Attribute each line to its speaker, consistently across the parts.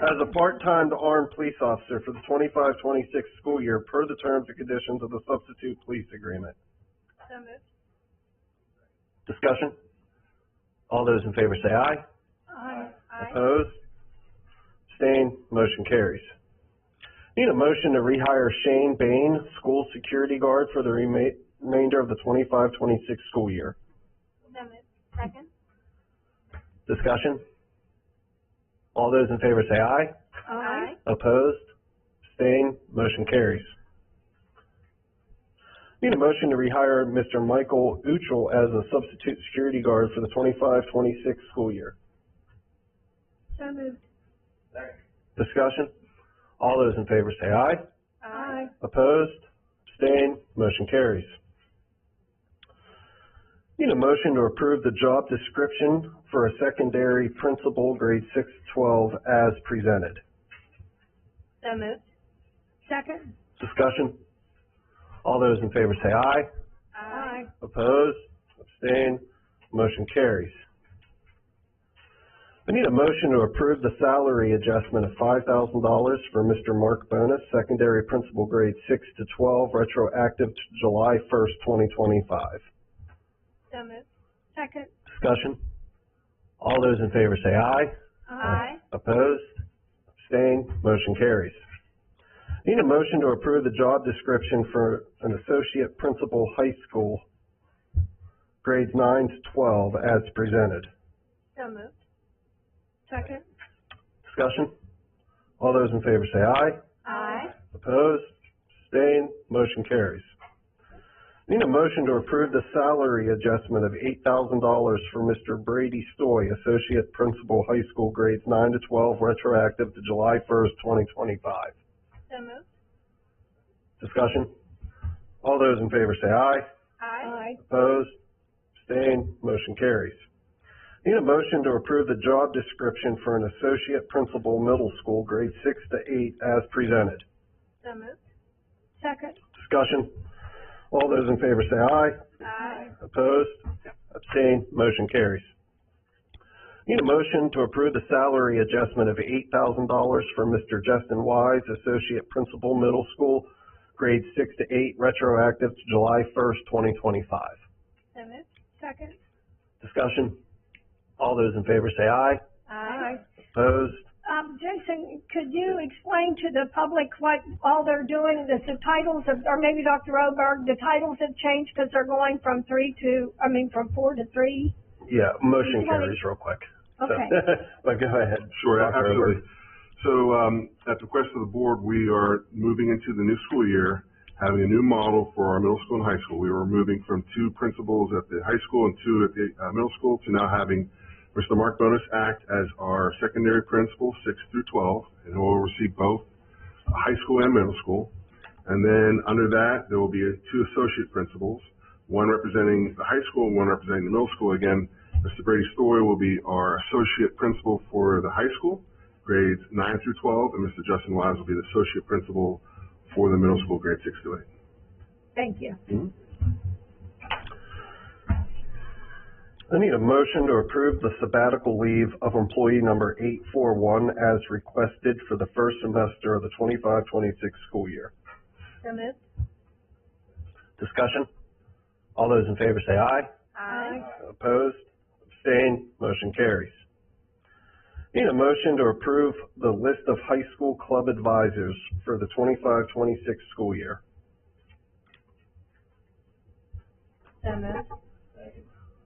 Speaker 1: as a part-time to armed police officer for the 25-26 school year per the terms and conditions of the substitute police agreement.
Speaker 2: So moved.
Speaker 1: Discussion? All those in favor say aye.
Speaker 2: Aye. Aye.
Speaker 1: Opposed? Abstained? Motion carries. Need a motion to rehire Shane Bain, school security guard for the rema- remainder of the 25-26 school year.
Speaker 2: So moved. Second.
Speaker 1: Discussion? All those in favor say aye.
Speaker 2: Aye.
Speaker 1: Opposed? Abstained? Motion carries. Need a motion to rehire Mr. Michael Uchel as a substitute security guard for the 25-26 school year.
Speaker 2: So moved.
Speaker 1: Discussion? All those in favor say aye.
Speaker 2: Aye.
Speaker 1: Opposed? Abstained? Motion carries. Need a motion to approve the job description for a secondary principal, grade six to twelve, as presented.
Speaker 2: So moved. Second.
Speaker 1: Discussion? All those in favor say aye.
Speaker 2: Aye.
Speaker 1: Opposed? Abstained? Motion carries. I need a motion to approve the salary adjustment of five thousand dollars for Mr. Mark Bonus, secondary principal grade six to twelve, retroactive to July first, twenty twenty-five.
Speaker 2: So moved. Second.
Speaker 1: Discussion? All those in favor say aye.
Speaker 2: Aye.
Speaker 1: Opposed? Abstained? Motion carries. Need a motion to approve the job description for an associate principal high school, grades nine to twelve, as presented.
Speaker 2: So moved. Second.
Speaker 1: Discussion? All those in favor say aye.
Speaker 2: Aye.
Speaker 1: Opposed? Abstained? Motion carries. Need a motion to approve the salary adjustment of eight thousand dollars for Mr. Brady Stoy, Associate Principal High School Grades Nine to Twelve, retroactive to July first, twenty twenty-five.
Speaker 2: So moved.
Speaker 1: Discussion? All those in favor say aye.
Speaker 2: Aye.
Speaker 1: Opposed? Abstained? Motion carries. Need a motion to approve the job description for an Associate Principal Middle School, Grades Six to Eight, as presented.
Speaker 2: So moved. Second.
Speaker 1: Discussion? All those in favor say aye.
Speaker 2: Aye.
Speaker 1: Opposed? Abstained? Motion carries. Need a motion to approve the salary adjustment of eight thousand dollars for Mr. Justin Wise, Associate Principal Middle School, grades six to eight, retroactive to July first, twenty twenty-five.
Speaker 2: So moved. Second.
Speaker 1: Discussion? All those in favor say aye.
Speaker 2: Aye.
Speaker 1: Opposed?
Speaker 3: Um, Jason, could you explain to the public what all they're doing, the, the titles of, or maybe Dr. Oberg, the titles have changed because they're going from three to, I mean, from four to three?
Speaker 1: Yeah, motion
Speaker 3: Did you want
Speaker 1: carries real quick. So-
Speaker 3: Okay.
Speaker 1: But go ahead.
Speaker 4: Sure,
Speaker 1: Dr. Oberg.
Speaker 4: absolutely. So, um, at the request of the board, we are moving into the new school year, having a new model for our middle school and high school. We were moving from two principals at the high school and two at the, uh, middle school to now having Mr. Mark Bonus act as our secondary principal, six through twelve, and who will oversee both uh, high school and middle school. And then under that, there will be uh, two associate principals, one representing the high school, and one representing the middle school. Again, Mr. Brady Story will be our associate principal for the high school, grades nine through twelve, and Mr. Justin Wise will be the associate principal for the middle school, grades six to eight.
Speaker 3: Thank you.
Speaker 1: I need a motion to approve the sabbatical leave of employee number eight four one as requested for the first semester of the 25-26 school year.
Speaker 2: So moved.
Speaker 1: Discussion? All those in favor say aye.
Speaker 2: Aye.
Speaker 1: Opposed? Abstained? Motion carries. Need a motion to approve the list of high school club advisors for the 25-26 school year.
Speaker 2: So moved.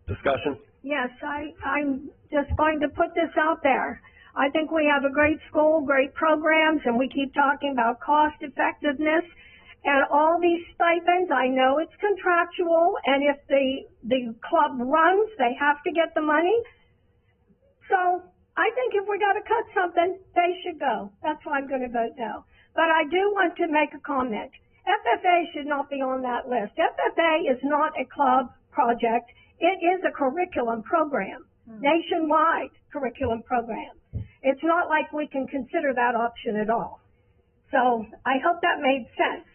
Speaker 1: Discussion?
Speaker 3: Yes, I, I'm just going to put this out there. I think we have a great school, great programs, and we keep talking about cost effectiveness. And all these stipends, I know it's contractual, and if the, the club runs, they have to get the money. So I think if we gotta cut something, they should go. That's why I'm gonna vote no. But I do want to make a comment. FFA should not be on that list. FFA is not a club project. It is a curriculum program, nationwide curriculum program. It's not like we can consider that option at all. So I hope that made sense.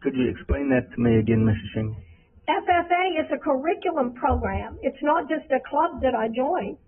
Speaker 5: Could you explain that to me again, Mrs. Shingle?
Speaker 3: FFA is a curriculum program. It's not just a club that I joined.